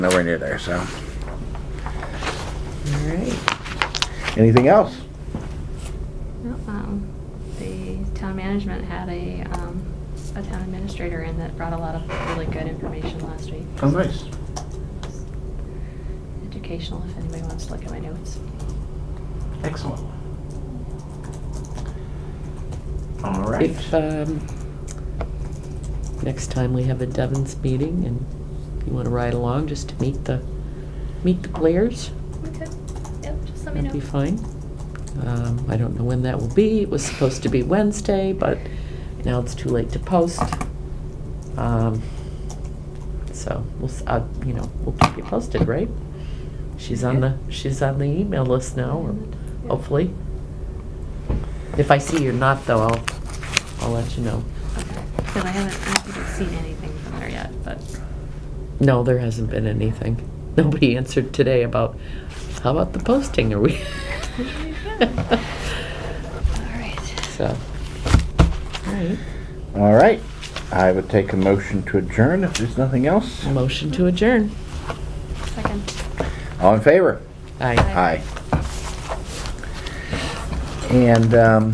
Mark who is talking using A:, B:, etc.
A: nowhere near there, so.
B: All right.
A: Anything else?
C: Um, The town management had a, um, a town administrator in that brought a lot of really good information last week.
A: Oh, nice.
C: Educational, if anybody wants to look at my notes.
A: Excellent. All right.
B: If, um, next time we have a Devon's meeting and you want to ride along just to meet the, meet the players,
C: Okay, yep, just let me
B: that'd be
C: know.
B: fine. Um, I don't know when that will be. It was supposed to be Wednesday, but now it's too late to post. Um, So we'll, s- uh, you know, we'll keep you posted, right? She's on the, she's on the email list now, or hopefully. If I see you're not though, I'll, I'll let you know.
C: Because I haven't, I haven't seen anything from there yet, but
B: No, there hasn't been anything. Nobody answered today about, how about the posting, are we?
C: all right.
B: So, all right,
A: All right. I would take a motion to adjourn if there's nothing else.
B: motion to adjourn.
C: Second.
A: All in favor?
B: Aye.
A: Aye. And, um,